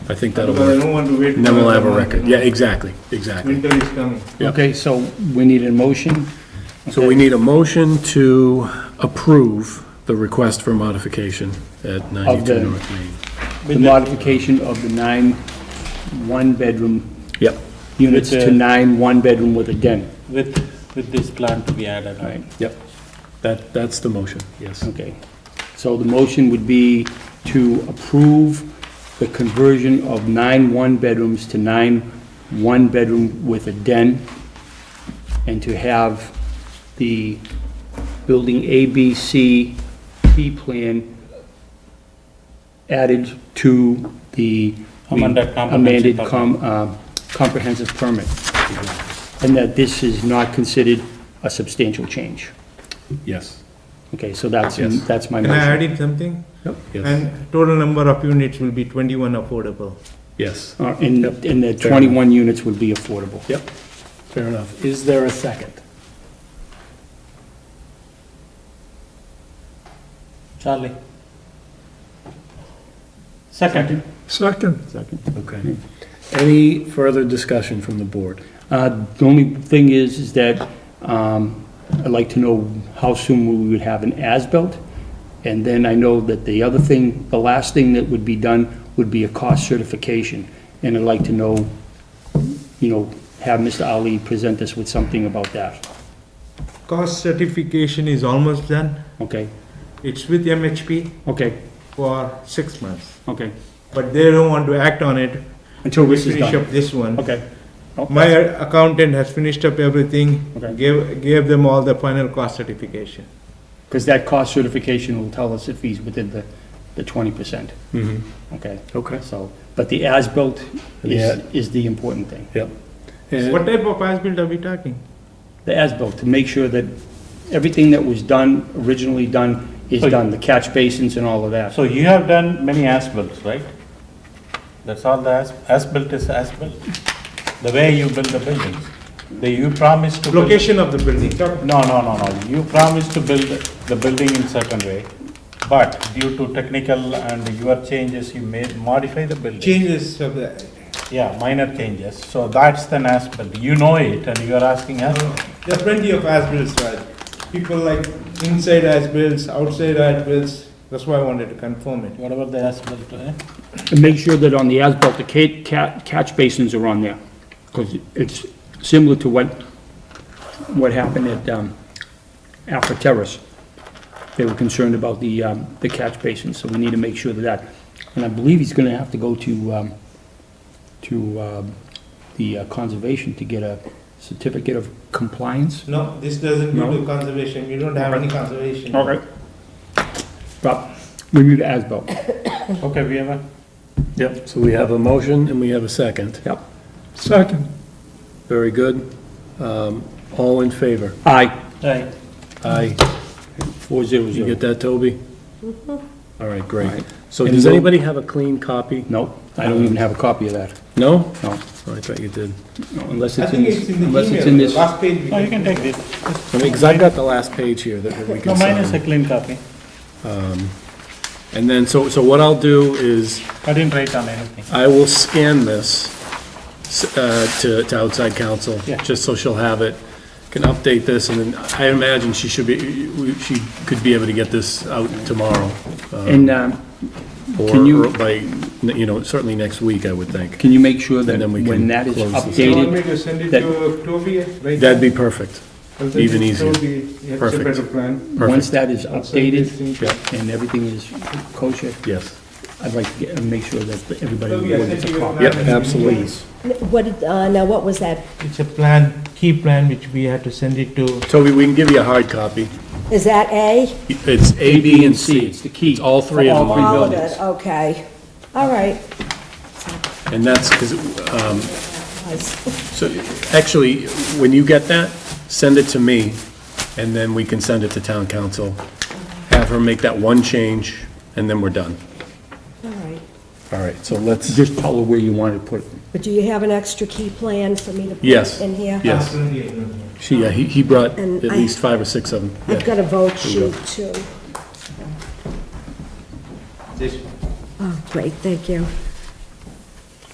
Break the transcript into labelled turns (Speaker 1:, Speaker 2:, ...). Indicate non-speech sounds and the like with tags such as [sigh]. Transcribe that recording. Speaker 1: I think that'll
Speaker 2: Because I
Speaker 1: work.
Speaker 2: don't want to wait.
Speaker 1: And then we'll have a
Speaker 2: for
Speaker 1: record. Yeah, exactly, exactly.
Speaker 2: Winter is coming.
Speaker 1: Yeah.
Speaker 3: Okay, so we need a motion.
Speaker 1: So we need a motion to approve the request for modification at
Speaker 3: the-
Speaker 1: 92 North Main.
Speaker 3: The modification of the nine one-bedroom
Speaker 1: Yep.
Speaker 3: units
Speaker 4: With, uh,
Speaker 3: to nine one-bedroom with a den.
Speaker 4: with, with this plan to be added
Speaker 3: All
Speaker 4: on.
Speaker 3: right,
Speaker 1: Yep. That, that's the motion, yes.
Speaker 3: okay. So the motion would be to approve the conversion of nine one-bedrooms to nine one-bedroom with a den, and to have the building A, B, C, D plan added to the
Speaker 4: Amended comprehensive
Speaker 3: amended
Speaker 4: permit.
Speaker 3: com- uh, comprehensive permit. And that this is not considered a substantial change.
Speaker 1: Yes.
Speaker 3: Okay, so that's,
Speaker 1: Yes.
Speaker 3: that's my
Speaker 2: Can I add
Speaker 3: motion.
Speaker 2: in something?
Speaker 1: Yes,
Speaker 2: And total number of units will be twenty-one affordable.
Speaker 1: yes.
Speaker 3: Uh, And, and the
Speaker 1: Fair
Speaker 3: 21 units would be affordable.
Speaker 1: Yep, fair enough. Is there a second?
Speaker 4: Charlie? Second.
Speaker 1: Second.
Speaker 3: Second.
Speaker 1: Okay. Any further discussion from the board?
Speaker 3: Uh, The only thing is, is that um, I'd like to know how soon we would have an as-built, And then I know that the other thing, the last thing that would be done would be a cost certification. And I'd like to know, you know, have Mr. Ali present us with something about that,
Speaker 2: Cost certification is almost done.
Speaker 3: okay?
Speaker 2: It's with MHP
Speaker 3: Okay,
Speaker 2: for six months.
Speaker 3: okay,
Speaker 2: But they don't want to act on it.
Speaker 3: until
Speaker 2: We
Speaker 3: this is
Speaker 2: finish
Speaker 3: done.
Speaker 2: up this one.
Speaker 3: Okay. Oh,
Speaker 2: My accountant has finished up everything,
Speaker 3: Okay.
Speaker 2: gave, gave them all the final cost certification.
Speaker 1: Uh,
Speaker 3: Because that cost certification will tell us if he's within the, the twenty percent,
Speaker 1: Mm-hmm.
Speaker 3: okay?
Speaker 1: Okay.
Speaker 3: So, but the as-built
Speaker 1: Yeah.
Speaker 3: is, is the important thing.
Speaker 2: What type of as-built are we talking?
Speaker 3: The as-built, to make sure that everything that was done, originally done, is
Speaker 1: Oh,
Speaker 4: So you-
Speaker 3: done, the catch basins and all of that.
Speaker 4: So you have done many as-builts, right? That's all the as, as-built is as-built? The way you build the buildings? The, you promised to. build-
Speaker 2: Location of the building, Talk-
Speaker 4: No, no, no, no. You promised to build the building in certain way, but due to technical and your changes, you made, modify the building.
Speaker 2: changes of the,
Speaker 4: Yeah, minor changes. So that's the as-built. You know it and you are asking us.
Speaker 2: There are plenty of as-bills, Raj. People like inside as-bills, outside as-bills, that's why I wanted to confirm it.
Speaker 4: Whatever the as-built, eh?
Speaker 3: And make sure that on the as-built, the ca- ca- catch basins are on there, because it's similar to what, what happened at, um, Alpha Terrace. They were concerned about the, um, the catch basins, so we need to make sure that that, and I believe he's gonna have to go to, um, to, um, the uh, conservation to get a certificate of compliance.
Speaker 2: No, this doesn't go
Speaker 3: No.
Speaker 2: to conservation, you don't have any conservation.
Speaker 3: Okay. But, review the as-built,
Speaker 4: Okay, we have a.
Speaker 1: Yep, so we have a motion and we have a second.
Speaker 3: yep.
Speaker 1: Second. Very good. Um, All in favor?
Speaker 3: Aye,
Speaker 4: Right.
Speaker 1: Aye.
Speaker 3: four zero
Speaker 1: You
Speaker 3: zero.
Speaker 1: get that, Toby?
Speaker 4: Mm-hmm.
Speaker 1: All right, great.
Speaker 3: Right.
Speaker 1: So
Speaker 3: And
Speaker 1: does
Speaker 3: we'll-
Speaker 1: anybody have a clean copy?
Speaker 3: No, I don't even have a copy of that,
Speaker 1: No?
Speaker 3: no.
Speaker 1: Oh, I thought you did.
Speaker 3: No, Unless
Speaker 2: I
Speaker 3: it's in
Speaker 2: think it's
Speaker 3: this,
Speaker 2: in
Speaker 3: unless
Speaker 2: the
Speaker 3: it's in
Speaker 2: email,
Speaker 3: this,
Speaker 2: the last page. we
Speaker 4: No, you can take
Speaker 2: it.
Speaker 4: this.
Speaker 1: I mean, because I've got the last page here that we
Speaker 4: No,
Speaker 1: can
Speaker 4: mine is a
Speaker 1: sign.
Speaker 4: clean copy.
Speaker 1: And then, so, so what I'll do is,
Speaker 4: I didn't write on anything.
Speaker 1: I will scan this s- uh, to to outside counsel,
Speaker 4: Yeah.
Speaker 1: just so she'll have it, can update this, and then I imagine she should be, we- she could be able to get this out tomorrow. um,
Speaker 3: and um, Can
Speaker 1: Or
Speaker 3: you-
Speaker 1: by, you know, certainly next week, I would think.
Speaker 3: can you make sure that
Speaker 1: And then we can
Speaker 3: when that is
Speaker 1: close this.
Speaker 2: Do you want me
Speaker 3: updated?
Speaker 2: to send it
Speaker 3: That-
Speaker 2: to Toby? Right
Speaker 1: That'd
Speaker 2: now?
Speaker 1: be perfect,
Speaker 2: I'll send
Speaker 1: even
Speaker 2: it to
Speaker 1: easier.
Speaker 2: Toby. He has a
Speaker 1: Perfect.
Speaker 2: better plan.
Speaker 3: Once
Speaker 1: perfect,
Speaker 3: that is
Speaker 2: I'll send this thing
Speaker 3: updated
Speaker 2: to-
Speaker 3: and everything is kosher,
Speaker 1: yes.
Speaker 3: I'd like to get, and make sure that everybody
Speaker 2: Toby, I
Speaker 3: gets
Speaker 2: sent
Speaker 3: a
Speaker 2: you a
Speaker 3: copy.
Speaker 2: plan.
Speaker 1: Yep, absolutely.
Speaker 5: What, did- uh, now what was that?
Speaker 2: It's a plan, key plan, which we had to send it to.
Speaker 1: Toby, we can give you a hard copy.
Speaker 5: Is that A?
Speaker 1: It's A, B, and C.
Speaker 3: It's the key.
Speaker 1: It's all three of
Speaker 3: All
Speaker 1: them.
Speaker 3: three
Speaker 1: are.
Speaker 5: All of
Speaker 3: buildings.
Speaker 5: it, okay. All right.
Speaker 1: And that's, because,
Speaker 3: [laughs]
Speaker 5: Nice.
Speaker 1: so, actually, when you get that, send it to me, and then we can send it to town council. Have her make that one change, and then we're done.
Speaker 5: All right.
Speaker 1: All right, so let's,
Speaker 3: Just tell her where you want to put it.
Speaker 5: But do you have an extra key plan for me to put
Speaker 1: Yes.
Speaker 5: in here?
Speaker 1: Yes.
Speaker 2: Absolutely, I know.
Speaker 1: she, yeah, he, he brought at
Speaker 5: And I-
Speaker 1: least five or six of them.
Speaker 5: I've
Speaker 1: Yeah.
Speaker 5: got a vote
Speaker 1: Here we go.
Speaker 5: sheet too.
Speaker 2: This one.
Speaker 5: Oh, great, thank you.